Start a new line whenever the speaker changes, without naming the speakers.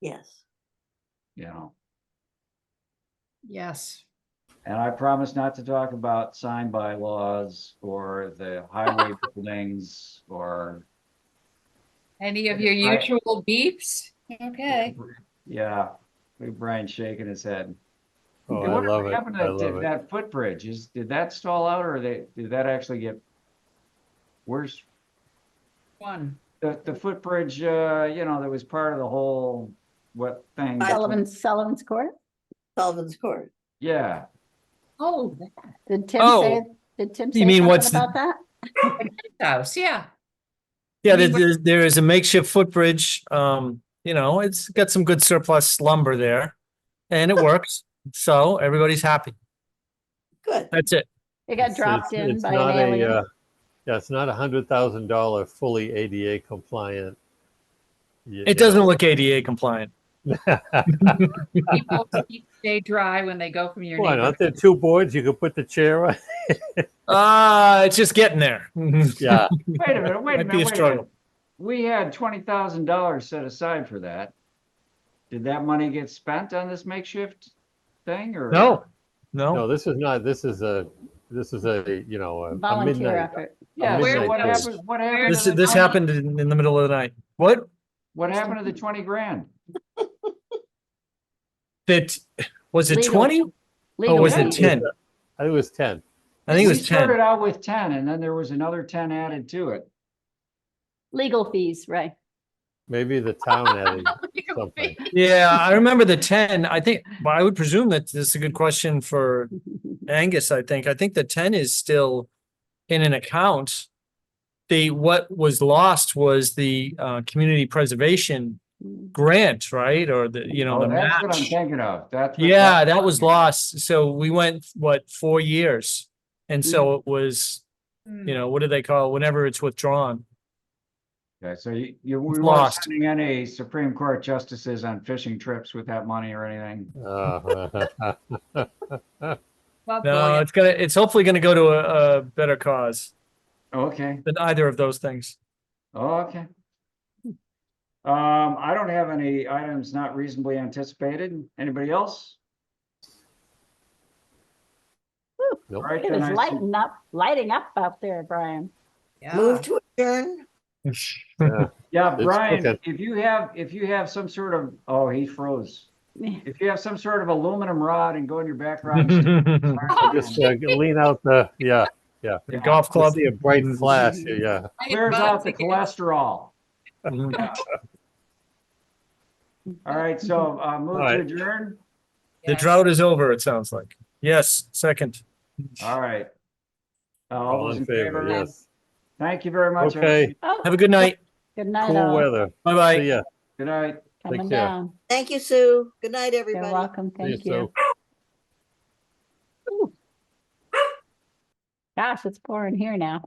Yes.
you know.
Yes.
And I promise not to talk about sign bylaws or the highway buildings or,
Any of your
I-
usual beeps? Okay.
yeah. Big Brian shaking his head.
Oh,
Hey,
I
whatever
love it.
happened to
I
that-
love it.
That footbridge is, did that stall out or they, did that actually get? Where's
One.
the, the footbridge, uh, you know, that was part of the whole, what thing?
Sullivan, Sullivan's Court?
Sullivan's Court.
Yeah,
Oh, that
Did Tim
Oh.
say, did Tim say
mean
something
what's the-
about that?
house, yeah.
Yeah, there,
mean,
there- there is a makeshift footbridge. Um, you know, it's got some good surplus lumber there. And it works. So everybody's happy.
Good.
That's it.
It got
It's-
dropped
it's-
in
it's
by
not
an
a,
alien.
uh, Yeah, it's not a hundred thousand dollar fully ADA compliant. y- you It doesn't know. look ADA compliant.
People keep- Stay dry when they go from your
Why
neighbor.
not? There are two boards. You could put the chair on. Ah,
Uh, it's just getting there.
Yeah,
wait a minute, wait a
Might be a
minute, wait a minute.
struggle.
We had twenty thousand dollars set aside for that. Did that money get spent on this makeshift thing or?
No, no.
No.
no, this is not, this is a, this is a, you know, a- a
Volunteer
midnight. Oh,
effort.
Yeah,
A
so
midnight
what
bid.
happened, what happened,
This,
to
is- this
the-
happened in, in the middle of the night. What?
what happened to the twenty grand?
That, was it
Legal-
twenty
legal
or was
way.
it
aid.
ten?
I think it was ten.
I think it
We
was ten.
Started out with ten and then there was another ten added to it.
Legal fees, right.
Maybe the town added something.
Yeah, I remember the ten. I think, but I would presume that this is a good question for Angus, I think. I think the ten is still in an account. The, what was lost was the uh, community preservation grant, right? Or the, you know,
Oh,
the
That's what I'm
match.
thinking of, that's. what-
Yeah, that was lost. So we went, what, four years? And so it was,
Hmm.
you know, what do they call, it? whenever it's withdrawn?
Okay, so you, you, we
It's
weren't
lost.
sending any Supreme Court justices on fishing trips with that money or anything.
Uh,
Love
No,
going.
it's gonna, it's hopefully gonna go to a, a better cause
Okay,
than either of those things.
Oh, okay. Um, I don't have any items not reasonably anticipated. Anybody else? All
Nope.
right,
It
then
was
I-
lighting up, lighting up out there, Brian.
Yeah.
Move to adjourn.
Yeah,
It's
Brian,
okay.
if you have, if you have some sort of, oh, he froze. If you have some sort of aluminum rod and go in your back rod.
Just uh, lean out the, yeah,
The golf
club,
club. Mm-hmm.
see a bright flash, yeah.
I
Clears out the
advise again.
cholesterol.
Mhm.
All right, so, uh, move
right.
to adjourn.
The
Yes.
drought is over, it sounds like. Yes, second.
All right. Uh, All
All
those
in favor, yes.
Thank you very much.
Okay,
everybody.
Oh,
Have a good night.
good night
cool
all.
weather. See
Bye-bye.
ya.
Good night.
Coming
care.
down.
Thank you, Sue. Good night,
You're
everybody.
welcome.
See you
Thank
soon.
you. Gosh, it's pouring here now.